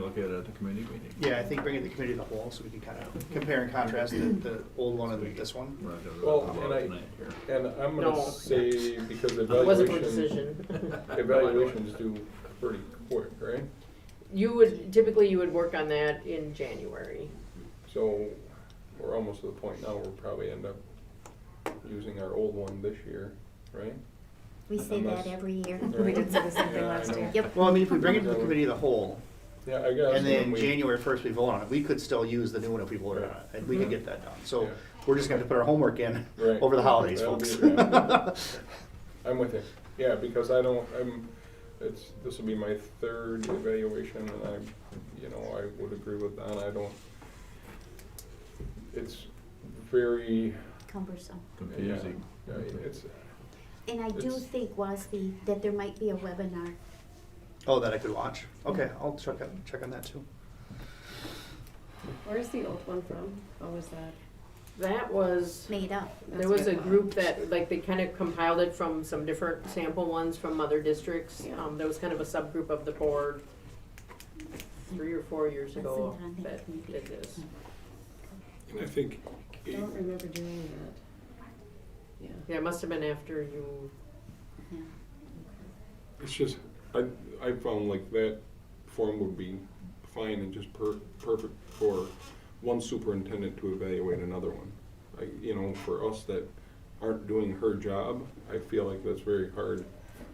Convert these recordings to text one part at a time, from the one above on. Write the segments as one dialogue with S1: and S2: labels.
S1: look at it at the committee meeting.
S2: Yeah, I think bringing the committee to the whole, so we can kind of compare and contrast the, the old one and this one.
S1: We're not gonna
S3: Well,
S1: talk
S3: and
S1: about it
S3: I-
S1: tonight here.
S3: And I'm
S4: No.
S3: gonna say, because
S4: It wasn't
S3: evaluation,
S4: my decision.
S3: evaluations do pretty quick, right?
S4: You would, typically you would work on that in January.
S3: So we're almost to the point now, we'll probably end up using our old one this year, right?
S5: We say
S3: Unless-
S5: that every year.
S3: Right.
S6: We did say the same
S3: Yeah,
S6: thing
S3: I
S6: last
S3: know.
S6: year.
S5: Yep.
S2: Well, I mean, if we bring it to the committee of the whole,
S3: Yeah, I guess.
S2: and then
S3: we-
S2: January first we vote on it, we could still use the new one if we voted on it, and we could get that done. So
S3: Yeah.
S2: we're just gonna have to put our homework in
S3: Right.
S2: over the holidays,
S3: That'll
S2: folks.
S3: be it, yeah. I'm with you, yeah, because I don't, I'm, it's, this will be my third evaluation, and I, you know, I would agree with that, I don't, it's very,
S5: Cumbersome.
S1: Confusing.
S3: yeah, it's,
S5: And I do
S3: It's-
S5: think, Wasby, that there might be a webinar.
S2: Oh, that I could watch. Okay, I'll check on, check on that too.
S6: Where's the old one from? What was that?
S4: That was,
S5: Made up.
S4: there was a group that, like, they kind of compiled it from some different sample ones from other districts.
S6: Yeah.
S4: Um, there was kind of a subgroup of the board three or four years ago
S5: Wasn't on that
S4: that
S5: committee.
S4: did this.
S7: And I think,
S6: I don't remember doing that. Yeah.
S4: Yeah, it must have been after you,
S5: Yeah.
S7: it's just, I, I found like that form would be fine and just per, perfect for one superintendent to evaluate another one. I, you know, for us that aren't doing her job, I feel like that's very hard.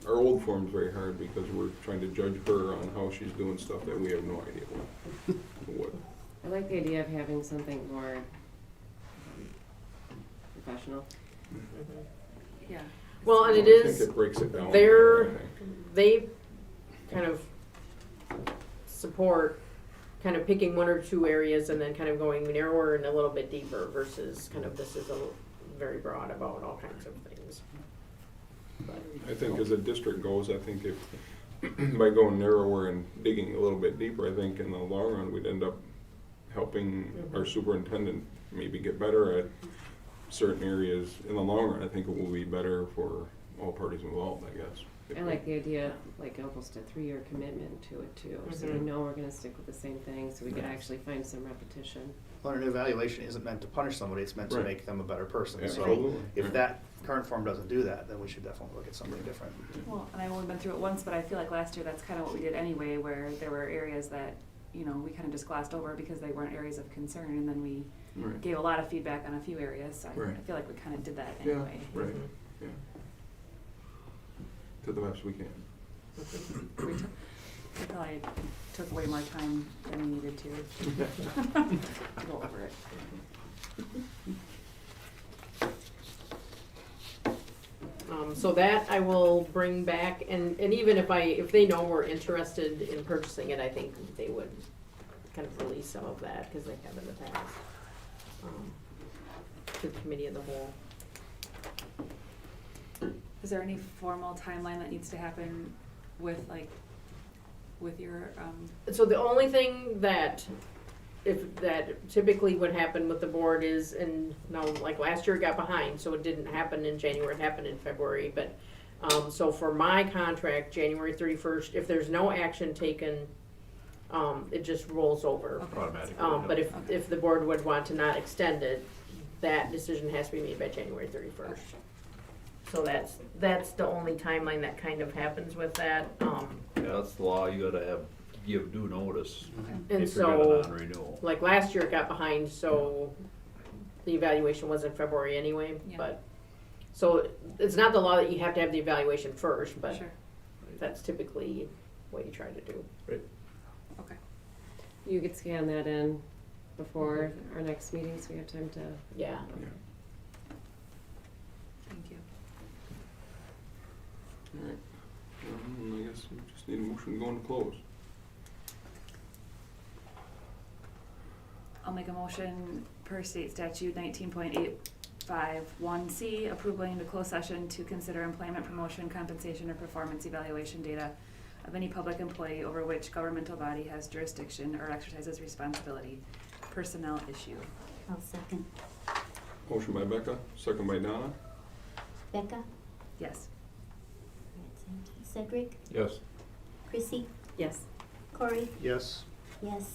S7: Our old form's very hard because we're trying to judge her on how she's doing stuff that we have no idea what, what,
S6: I like the idea of having something more um, professional. Yeah.
S4: well, and it
S7: I think
S4: is.
S7: it breaks it down.
S4: their-
S7: I think.
S4: they kind of support kind of picking one or two areas and then kind of going narrower and a little bit deeper versus kind of this is a l- very broad about all kinds of things.
S7: I think as a district goes, I think if, by going narrower and digging a little bit deeper, I think in the long run, we'd end up helping our superintendent maybe get better at certain areas. In the long run, I think it will be better for all parties involved, I guess.
S6: I like the idea, like almost a three-year commitment to it too, so we
S8: Mm-hmm.
S4: Mhm.
S6: know we're gonna stick with the same thing, so we could actually find some repetition.
S2: Well, an evaluation isn't meant to punish somebody, it's meant to
S7: Right.
S2: make them a better person. So
S7: Absolutely.
S2: if that current form doesn't do that, then we should definitely look at something different.
S8: Well, and I've only been through it once, but I feel like last year that's kind of what we did anyway, where there were areas that, you know, we kind of just glossed over because they weren't areas of concern, and then we
S7: Right.
S8: gave a lot of feedback on a few areas, so I- I
S7: Right.
S8: feel like we kind of did that
S7: Yeah,
S8: anyway.
S7: right, yeah. Mhm. To the best we can.
S8: We took- we probably took way more time than we needed to to go over it.
S4: Um, so that I will bring back and, and even if I, if they know we're interested in purchasing it, I think they would kind of release some of that because they have in the past. um, To the committee of the whole.
S8: Is there any formal timeline that needs to happen with, like, with your, um,
S4: So the only thing that, if, that typically would happen with the board is, and now, like last year it got behind, so it didn't happen in January, it happened in February, but, um, so for my contract, January thirty-first, if there's no action taken, um, it just rolls over.
S1: Automatically.
S4: Um, but if,
S8: Okay.
S4: if the board would want to not extend it, that decision has to be made by January thirty-first. So that's, that's the only timeline that kind of happens with that, um,
S1: Yeah, that's the law, you gotta have, give due notice
S4: and
S1: if
S4: so.
S1: you're gonna non-renewal.
S4: like last year it got behind, so the evaluation was in February anyway,
S8: Yeah.
S4: but, so it's not the law that you have to have the evaluation first, but
S8: sure,
S4: that's typically what you try to do.
S8: okay.
S6: You could scan that in before our next meeting, so we have time to
S4: Yeah,
S8: Thank you.
S7: All right. Um, I guess we just need a motion going to close.
S8: I'll make a motion per state statute nineteen point eight five one C, approve going into closed session to consider employment promotion, compensation, or performance evaluation data of any public employee over which governmental body has jurisdiction or exercises responsibility, personnel issue.
S5: I'll second.
S7: Motion by Becca, second by Donna.
S5: Becca?
S8: Yes.
S5: Cedric?
S3: yes.
S5: Chrissy?
S6: Yes.
S5: Corey?
S2: Yes?
S5: Yes.